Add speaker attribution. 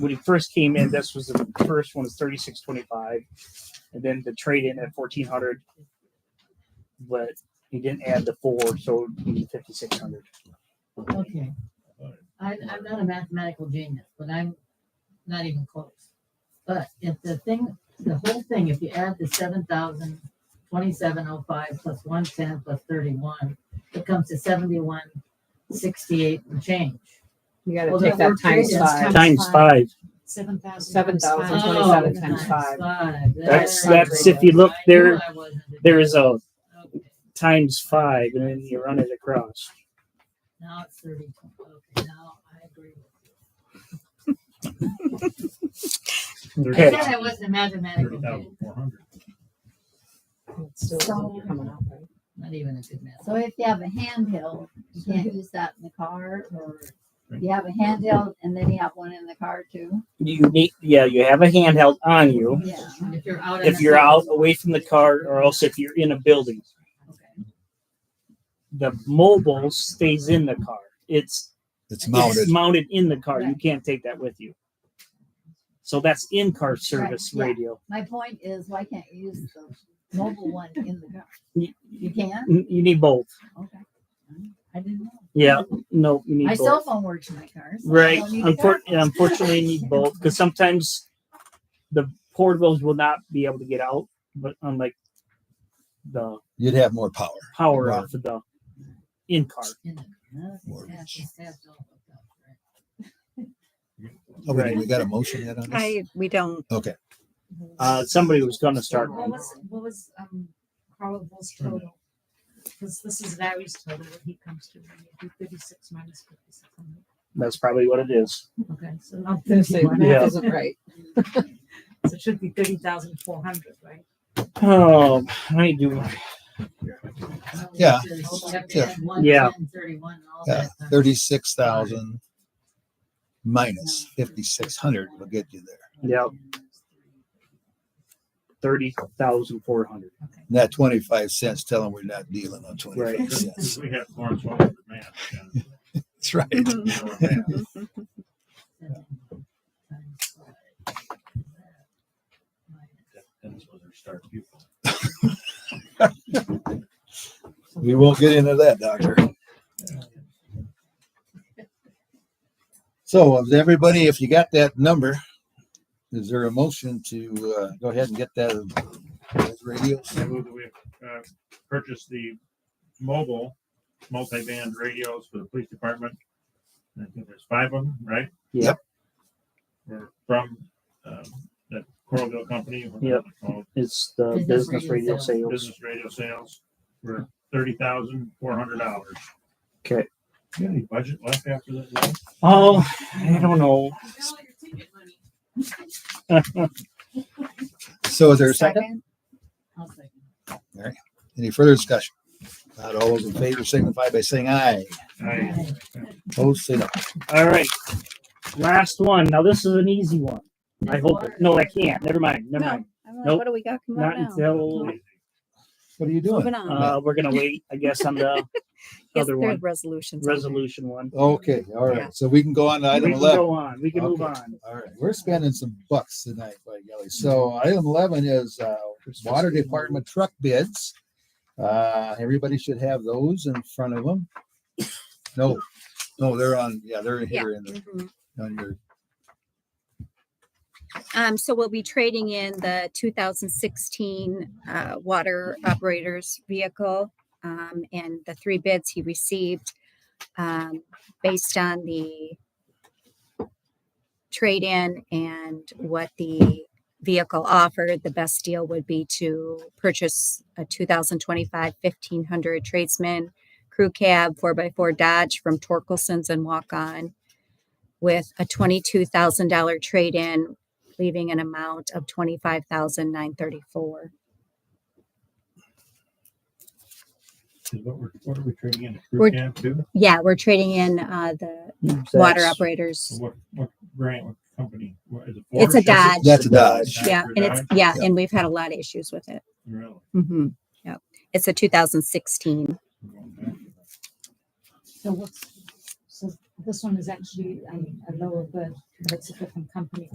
Speaker 1: when he first came in, this was the first one was thirty six twenty five, and then the trade in at fourteen hundred, but he didn't add the four, so he's fifty six hundred.
Speaker 2: Okay. I, I'm not a mathematical genius, but I'm not even close. But if the thing, the whole thing, if you add the seven thousand twenty-seven oh five plus one ten plus thirty-one, it comes to seventy-one sixty-eight and change.
Speaker 3: You gotta
Speaker 2: Well,
Speaker 3: take
Speaker 2: that
Speaker 3: that
Speaker 2: worked
Speaker 3: times
Speaker 2: great.
Speaker 3: five.
Speaker 1: Times five.
Speaker 4: Seven thousand.
Speaker 3: Seven thousand
Speaker 2: Oh,
Speaker 3: twenty-seven times five.
Speaker 2: five.
Speaker 1: That's-
Speaker 2: There it
Speaker 3: that's
Speaker 2: is.
Speaker 1: if you look
Speaker 2: I knew
Speaker 1: there-
Speaker 2: I wasn't a
Speaker 1: There is a
Speaker 2: genius. Okay.
Speaker 1: times five, and then you run it across.
Speaker 2: Now it's thirty. Okay, now I agree. I
Speaker 1: Okay.
Speaker 2: said I wasn't a mathematical genius.
Speaker 3: It's still
Speaker 5: So-
Speaker 3: coming out, right?
Speaker 2: Not even a good math.
Speaker 5: So if you have a handheld, you can't use that in the car or you have a handheld and then you have one in the car too.
Speaker 1: You need, yeah, you have a handheld on you
Speaker 5: Yeah.
Speaker 2: If you're out. on
Speaker 1: if
Speaker 2: the
Speaker 1: you're out
Speaker 2: field,
Speaker 1: away from the car, or else if you're in a building.
Speaker 2: okay.
Speaker 1: The mobile stays in the car. It's
Speaker 6: It's
Speaker 1: It's
Speaker 6: mounted.
Speaker 1: mounted in the car. You
Speaker 5: Right.
Speaker 1: can't take that with you. So that's in-car service
Speaker 5: yeah.
Speaker 1: radio.
Speaker 5: My point is, why can't you use the mobile one in the car?
Speaker 1: You,
Speaker 5: You can?
Speaker 1: you you need both.
Speaker 5: Okay. I didn't know.
Speaker 1: Yeah. No, you need
Speaker 5: My
Speaker 1: both.
Speaker 5: cell phone works in my car. so I
Speaker 1: right.
Speaker 5: don't need
Speaker 1: Unfor-
Speaker 5: that.
Speaker 1: unfortunately, you need both because sometimes the portables will not be able to get out, but unlike the
Speaker 6: You'd have more power.
Speaker 1: power
Speaker 6: Right.
Speaker 1: off of the in-car.
Speaker 2: In the- no,
Speaker 6: Word.
Speaker 2: yeah, she said so, but, right.
Speaker 6: Oh, we-
Speaker 1: Right.
Speaker 6: We got a motion yet on this?
Speaker 7: I, we don't.
Speaker 6: Okay,
Speaker 1: Uh, somebody was going to start.
Speaker 4: What was, what was, um, Carl Bull's
Speaker 3: Hmm.
Speaker 4: total? Cause this is Larry's total, what he comes to, thirty-six minus fifty-six.
Speaker 1: That's probably what it is.
Speaker 4: Okay, so not
Speaker 3: Gonna say
Speaker 4: thirty-one,
Speaker 1: Yeah.
Speaker 3: math isn't right.
Speaker 4: so it should be thirty thousand four hundred, right?
Speaker 1: Oh, I do.
Speaker 2: No,
Speaker 6: Yeah.
Speaker 2: it's just- you have to
Speaker 6: Yeah.
Speaker 2: add "Oh, one,
Speaker 1: Yeah.
Speaker 2: 10, 31, and all
Speaker 6: yeah,
Speaker 2: that stuff.
Speaker 6: thirty-six thousand minus fifty-six hundred will get you there.
Speaker 1: Yeah. Thirty thousand four hundred.
Speaker 6: Not twenty-five cents, tell them we're not dealing on twenty-five cents.
Speaker 8: We have Florence Welch for math. and,
Speaker 6: That's right.
Speaker 8: you know, math.
Speaker 2: Times five.
Speaker 8: That's where they start people.
Speaker 6: We won't get into that, Doctor. So, of everybody, if you got that number, is there a motion to uh, go ahead and get that those radios?
Speaker 8: I move that we uh, purchase the mobile multi-band radios for the police department. I think there's five of them, right?
Speaker 1: Yep.
Speaker 8: We're from um, that Coralville company. what they're called,
Speaker 1: It's the
Speaker 2: Business
Speaker 1: business
Speaker 2: radio
Speaker 1: radio sales.
Speaker 8: Business radio sales for thirty thousand four hundred dollars.
Speaker 1: Okay.
Speaker 8: You have any budget left after that? Lynn?
Speaker 1: Oh, I don't know.
Speaker 6: So, is there a second?
Speaker 2: I'll second.
Speaker 6: Any further discussion? Not all those in favor signify by saying aye.
Speaker 8: I-
Speaker 6: Opposed, say no.
Speaker 1: All right. Last one. Now this is an easy one. I hope. It, no, I can't. Never mind. Never
Speaker 7: No.
Speaker 1: mind.
Speaker 7: I'm like,
Speaker 1: Nope.
Speaker 7: what do we got coming
Speaker 1: Not
Speaker 7: up now?
Speaker 1: until
Speaker 6: What are you doing?
Speaker 7: Moving on.
Speaker 1: uh, we're gonna wait. I guess on the
Speaker 7: Yes,
Speaker 1: other
Speaker 7: there's
Speaker 1: one,
Speaker 7: resolutions. on there.
Speaker 1: resolution one.
Speaker 6: Okay, all
Speaker 7: Yeah.
Speaker 6: right. So we can go on to
Speaker 1: we
Speaker 6: item
Speaker 1: can
Speaker 6: eleven.
Speaker 1: go on. We can move
Speaker 6: Okay.
Speaker 1: on.
Speaker 6: All right, we're spending some bucks tonight, by golly. So item eleven is uh, water department truck bids. Uh, everybody should have those in front of them. No, no, they're on, yeah, they're here in the,
Speaker 7: Mhm.
Speaker 6: on your,
Speaker 7: Um, so we'll be trading in the two thousand sixteen, uh, water operators vehicle. Um, and the three bids he received, um, based on the trade-in and what the vehicle offered, the best deal would be to purchase a 2025 1500 tradesman crew cab four x four Dodge from Torkelson's and walk-on with a twenty-two thousand dollar trade-in leaving an amount of twenty-five thousand nine thirty-four.
Speaker 8: Is what we're, what are we trading in? Crew
Speaker 7: We're-
Speaker 8: cab too?
Speaker 7: Yeah, we're trading in uh, the water
Speaker 1: That's-
Speaker 7: operators.
Speaker 8: What, what brand, what company? What is it?
Speaker 7: It's a
Speaker 8: Forrest? Is it-
Speaker 6: that's a Dodge.
Speaker 7: Yeah, and it's yeah, and we've had a lot of issues with it.
Speaker 8: Really?
Speaker 7: Mm-hmm. Yeah, it's a 2016.
Speaker 8: Okay.
Speaker 4: So what's, so This one is actually um, a lower bid, but it's a different company.